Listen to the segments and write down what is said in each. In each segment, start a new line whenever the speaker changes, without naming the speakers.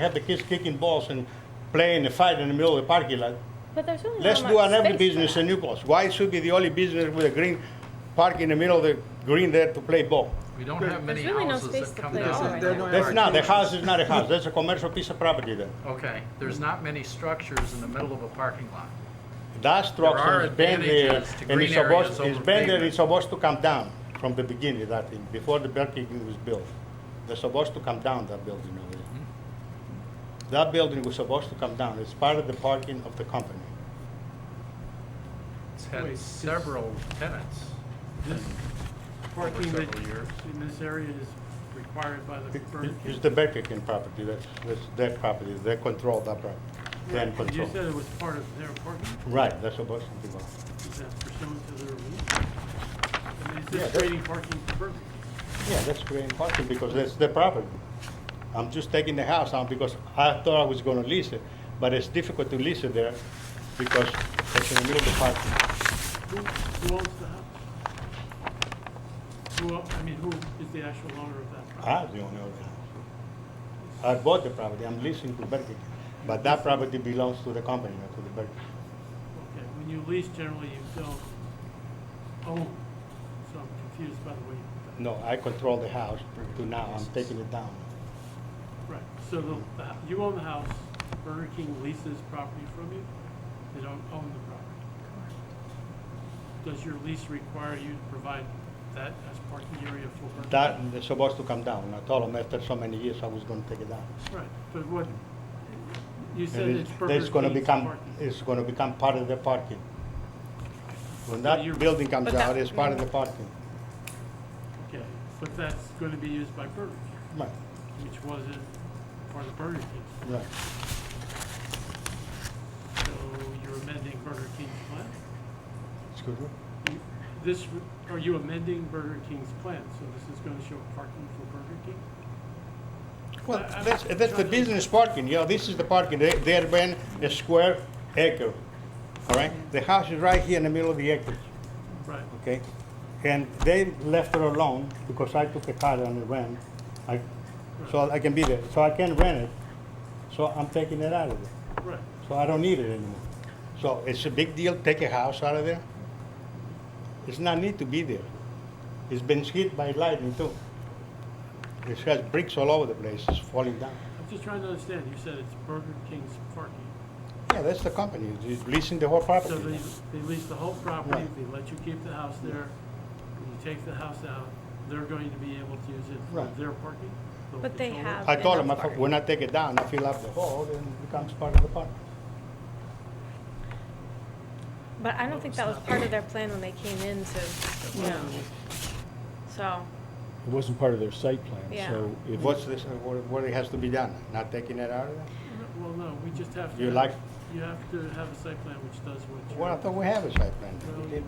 have the kids kicking balls and playing a fight in the middle of the parking lot.
But there's really
Let's
not
do
much
another
space for
business
that.
in Newport. Why it should be the only business with a green park in the middle of the green there to play ball?
We don't have many
There's really no
houses
space
that
to
come
play
down.
ball
on
right
that
now.
are
That's not, the
huge.
house is not a house, that's a commercial piece of property there.
Okay, there's not many structures in the middle of a parking lot.
That structure
are
is banned there,
advantages to
and it's
green areas
supposed, it's
over
banned there,
pavement.
it's supposed to come down from the beginning, that thing, before the Burger King was built. They're supposed to come down, that building over there.
Hmm.
That building was supposed to come down, it's part of the parking of the company.
It's had
Wait,
several tenants
This
over
parking that
several years.
in this area is required by the Burger
It's
King.
the Burger King property, that's, that's their property, they control that property, they in
You
control.
said it was part of their parking,
Right, that's supposed to be,
is that pursuant to their rules? I mean, Is
Yeah,
this
that-
creating parking for Burger King?
yeah, that's very important, because that's their property. I'm just taking the house out because I thought I was gonna lease it, but it's difficult to lease it there because it's in the middle of the parking.
Who, who owns the house? Who, o- I mean, who is the actual owner of that property?
I'm the owner of the house. I bought the property, I'm leasing to Burger King, but that property belongs to the company, not to the Burger King.
Okay, when you lease, generally you don't own, so I'm confused by the way. you-
No, I control the house to now, I'm taking it down.
Right, so the, the hou- you own the house, Burger King leases property from you, they don't own the property. Does your lease require you to provide that as parking area for Burger King?
That, is supposed to come down, I told them after so many years, I was gonna take it down.
Right, but what, you said
And
it's
it's-
Burger
That's
King's
gonna become,
parking.
it's gonna become part of the parking. When that
you're-
building comes
But that-
out, it's part of the parking.
Okay, but that's gonna be used by Burger King,
Right,
which wasn't part of Burger King.
right.
So you're amending Burger King's plan?
Excuse me?
You- This, are you amending Burger King's plan, so this is gonna show parking for Burger King?
Well,
I- I'm
that's, that's the
trying to-
business parking, yeah, this is the parking, They- they're been a square acre, all right? The house is right here in the middle of the acre,
Right.
okay? And they left her alone because I took the car and ran, I, so I can be there, so I can rent it, so I'm taking it out of there.
Right,
So I don't need it anymore. So it's a big deal, take a house out of there. It's not need to be there. It's been hit by lightning too. It has bricks all over the place, it's falling down.
I'm just trying to understand, you said it's Burger King's parking.
Yeah, that's the company, it's leasing the whole property.
So they, they lease the whole property,
Right.
they let you keep the house there, when you take the house out, they're going to be able to use it for
Right.
their parking? They'll
But they
control it?
have-
I told them,
Enough
if-
parking.
when I take it down, I fill up the hole and it becomes part of the park.
But I don't think that was part of their plan when they came in to,
No,
so,
It wasn't part of their site plan,
Yeah.
so if.
What's this, what, what it has to be done, not taking it out of there?
Well, no, we just have to.
You
have-
like-
You have to have a site plan which does what you.
Well, I thought we have a site plan. We did.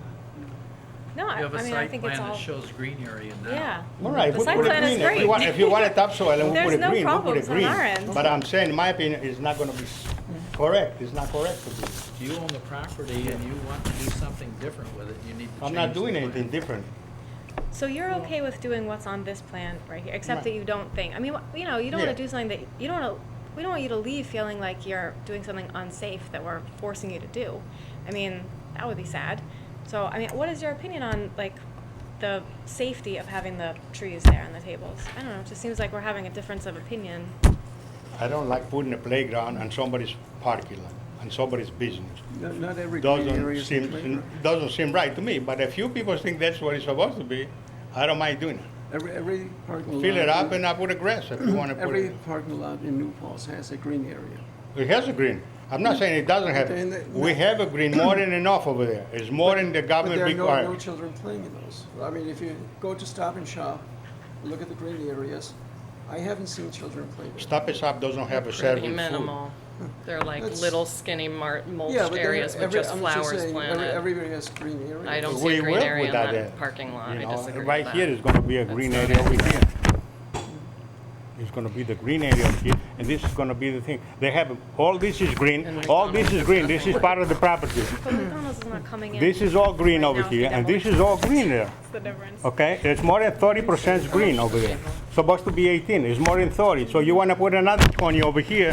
no, I
You have
I
a
mean, I
site
think it's
plan that
all,
shows green area now.
yeah.
All right,
The
we
site
put it
plan is
green. If
great.
you want, if you want a topsoil and we
There's
put it
no
green, we put it
problems on
green.
our end.
But I'm saying, in my opinion, it's not gonna be s- correct, it's not correct to do. it.
You own the property and you want to do something different with it, you need to change
I'm not
the
doing
plan.
anything different.
So you're okay with doing what's on this plan right here, except that
Right.
you don't think, I mean, wh- you know, you don't want
Yeah.
to do something that, you don't want to, we don't want you to leave feeling like you're doing something unsafe that we're forcing you to do. I mean, that would be sad. So, I mean, what is your opinion on, like, the safety of having the trees there on the tables? I don't know, it just seems like we're having a difference of opinion.
I don't like putting a playground on somebody's parking lot, on somebody's business.
not not every green area
Doesn't
is a
seem,
playground.
doesn't seem right to me, but if few people think that's what it's supposed to be, I don't mind doing it.
Every, every parking lot.
Fill it up
in-
and I put a grass if you wanna put
Every
it.
parking lot in New Paltz has a green area.
It has a green. I'm not saying it doesn't have
Then
it.
the-
We have a green more than enough over there. It's more than the
But
government
there are no, no
requires.
children playing in those. I mean, if you go to Stop and Shop, look at the green areas, I haven't seen children play there.
Stop and Shop doesn't have a serving
pretty
food.
minimal. They're like
That's-
little skinny mar-
Yeah,
mulched
but there-
areas with
every-
just
I'm
flowers
saying, every-
planted.
Everybody has green areas.
I don't see
We
a green
work
area in
without
that
that,
parking lot.
you
I
know.
disagree with
Right
that.
here is gonna be a
That's
green
not
area
it.
over here. It's gonna be the green area over here, and this is gonna be the thing. They have, all this is green,
And
all this is
McDonald's
green,
is
this is
nothing.
part of the property.
But McDonald's is not coming in.
This is all green
Right
over
now, it's
here,
the
and
devil.
this is all green there,
That's the difference.
okay? It's more than thirty percent green over there. supposed to be 18, it's more than 30, so you want to put another 20 over here,